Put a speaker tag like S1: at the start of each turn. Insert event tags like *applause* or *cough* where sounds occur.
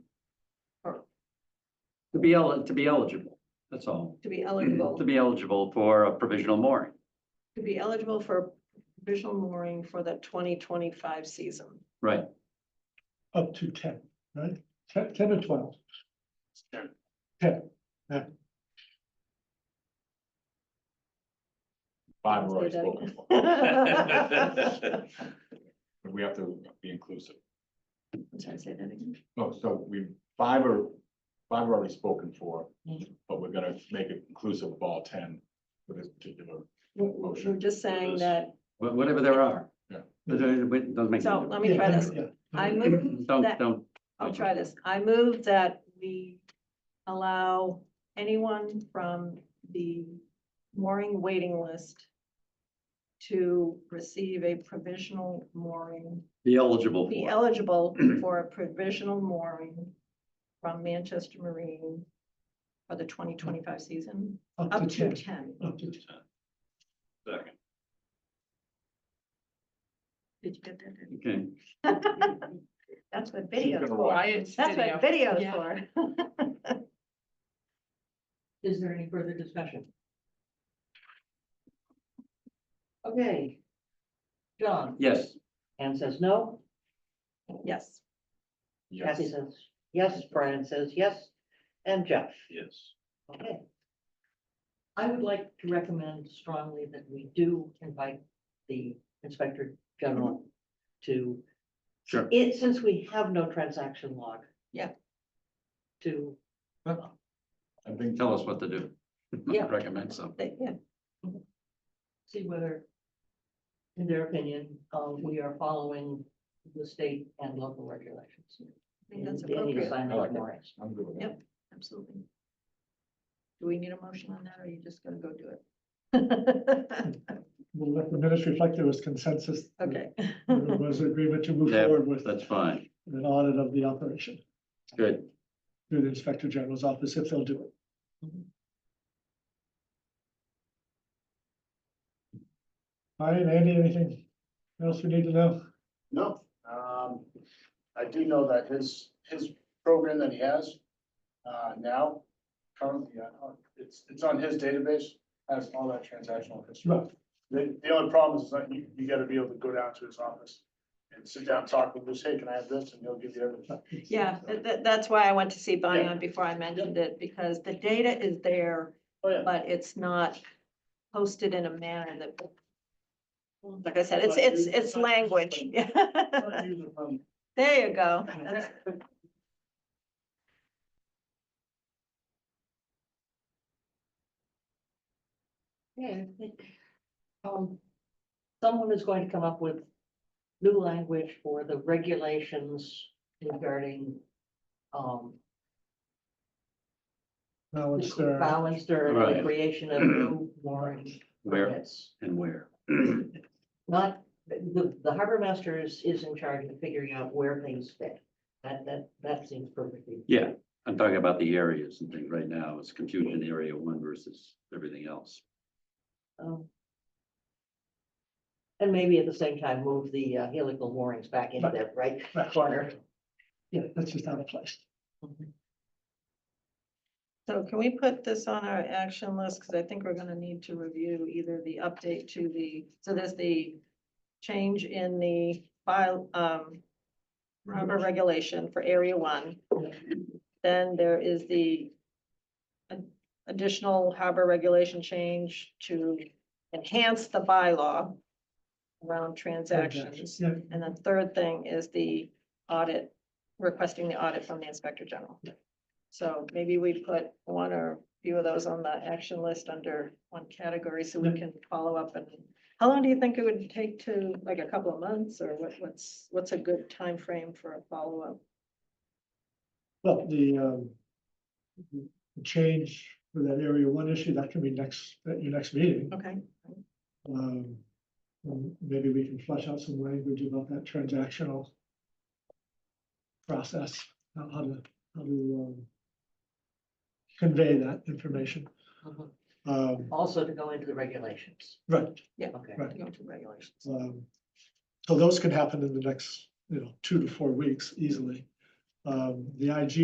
S1: be el, to be eligible, that's all. Mm,
S2: to be
S1: To
S2: eligible,
S1: be eligible for a provisional mooring.
S2: to be eligible for provisional mooring for the twenty twenty-five season.
S1: Right,
S3: up to ten, right? Ten, ten or twelve. Ten, yeah.
S2: Say
S4: Five are already
S2: that
S4: spoken
S2: again.
S4: for. But we have to be inclusive.
S2: I'm sorry, say that again.
S4: No, Oh, so we, five are, five are already spoken for,
S2: Mhm.
S4: but we're gonna make it inclusive of all ten for this particular.
S2: We're, we're just saying
S4: Motion.
S2: that,
S1: wha- whatever there are.
S4: Yeah.
S1: But there- it Doesn't make. any
S2: so
S1: difference.
S2: let me try
S3: Yeah,
S2: this.
S3: yeah.
S2: I
S1: *clears throat*
S2: move
S1: Don't,
S2: that-
S1: don't,
S2: I'll try this. I move that we allow anyone from the mooring waiting list to receive a provisional mooring,
S1: be eligible
S2: be
S1: for.
S2: eligible for a provisional mooring from Manchester Marine for the twenty twenty-five season,
S3: Up
S2: up
S3: to
S2: to
S3: ten,
S2: ten.
S3: up to 10.
S1: Second.
S2: Did you get that?
S1: Okay,
S2: That's what
S4: She's
S2: video's
S4: gonna
S2: for.
S4: watch.
S5: That's
S2: That's what video's
S5: Yeah.
S2: for.
S5: Is there any further discussion? Okay. John,
S1: yes,
S5: Anne says no,
S2: Yes.
S4: Yes,
S5: Kathy says yes, Brian says yes, and Jeff,
S4: yes.
S5: okay. I would like to recommend strongly that we do invite the Inspector General to
S1: sure.
S5: it, since we have no transaction log.
S2: Yeah.
S5: To,
S4: I think.
S1: Tell us what to do. *laughs*
S5: Yeah.
S1: Recommend some.
S2: They- Yeah,
S5: see whether, in their opinion, uh, we are following the state and local regulations.
S2: I think that's
S5: And Danny to
S2: appropriate.
S5: sign
S4: I
S5: off
S4: like it.
S5: for us.
S4: I'm good with
S2: Yep.
S4: that.
S2: Absolutely. Do we need a motion on that, or are you just gonna go do it? *laughs*
S3: We'll let the minutes reflect there was consensus. that
S2: Okay.
S3: There was agreement to move
S1: Yeah,
S3: forward with
S1: That's fine,
S3: an audit of the operation
S1: good.
S3: through the Inspector General's office if they'll do it. All right, Andy, anything else we need to know?
S6: No, um, I do know that his, his program that he has, uh, now, currently, uh, it's, it's on his database, has all that transactional history.
S3: Right.
S6: The, the only problem is that you, you gotta be able to go down to his office and sit down, talk with him, say, hey, can I have this, and he'll give you everything.
S2: Yeah, that, that- that's why I went to see Bion before I mentioned it, because the data is there,
S6: Oh, yeah.
S2: but it's not posted in a manner that, like I said, it's, it's, it's language.
S6: Not user friendly.
S2: *laughs* There you go. That's-
S5: Yeah, I think, um, someone is going to come up with new language for the regulations regarding, um,
S3: Now
S5: the
S3: it's uh, there.
S5: balance or the
S1: Right.
S5: creation
S1: *clears throat*
S5: of new mooring
S1: Where
S5: permits.
S1: and where? *clears throat*
S5: Not, the, the harbor master is, is in charge of figuring out where things fit. That, that, that seems perfectly.
S1: Yeah, I'm talking about the areas and things right now. It's confusion in area one versus everything else.
S5: um, And maybe at the same time, move the uh, helical moorings back into that right corner.
S3: Yeah, that's just out of place.
S2: So can we put this on our action list? Because I think we're gonna need to review either the update to the, so there's the change in the file, um, harbor regulation for area one. Then there is the ad- additional harbor regulation change to enhance the bylaw around transactions.
S3: Yeah,
S2: And then third thing is the audit, requesting the audit from the inspector general. So maybe we put one or few of those on the action list under one category so we can follow up and. How long do you think it would take to, like a couple of months or what, what's, what's a good time frame for a follow-up?
S3: well, the, um, the change for that area one issue, that can be next, at your next meeting.
S2: Okay,
S3: Um, um, maybe we can flesh out some language about that transactional process, how how to, how to, um, convey that information.
S5: Mhm.
S3: Um,
S5: Also to go into the regulations.
S3: right,
S5: Okay.
S3: Right.
S2: to go to regulations.
S3: Um, So those could happen in the next, you know, two to four weeks easily. Um, The IG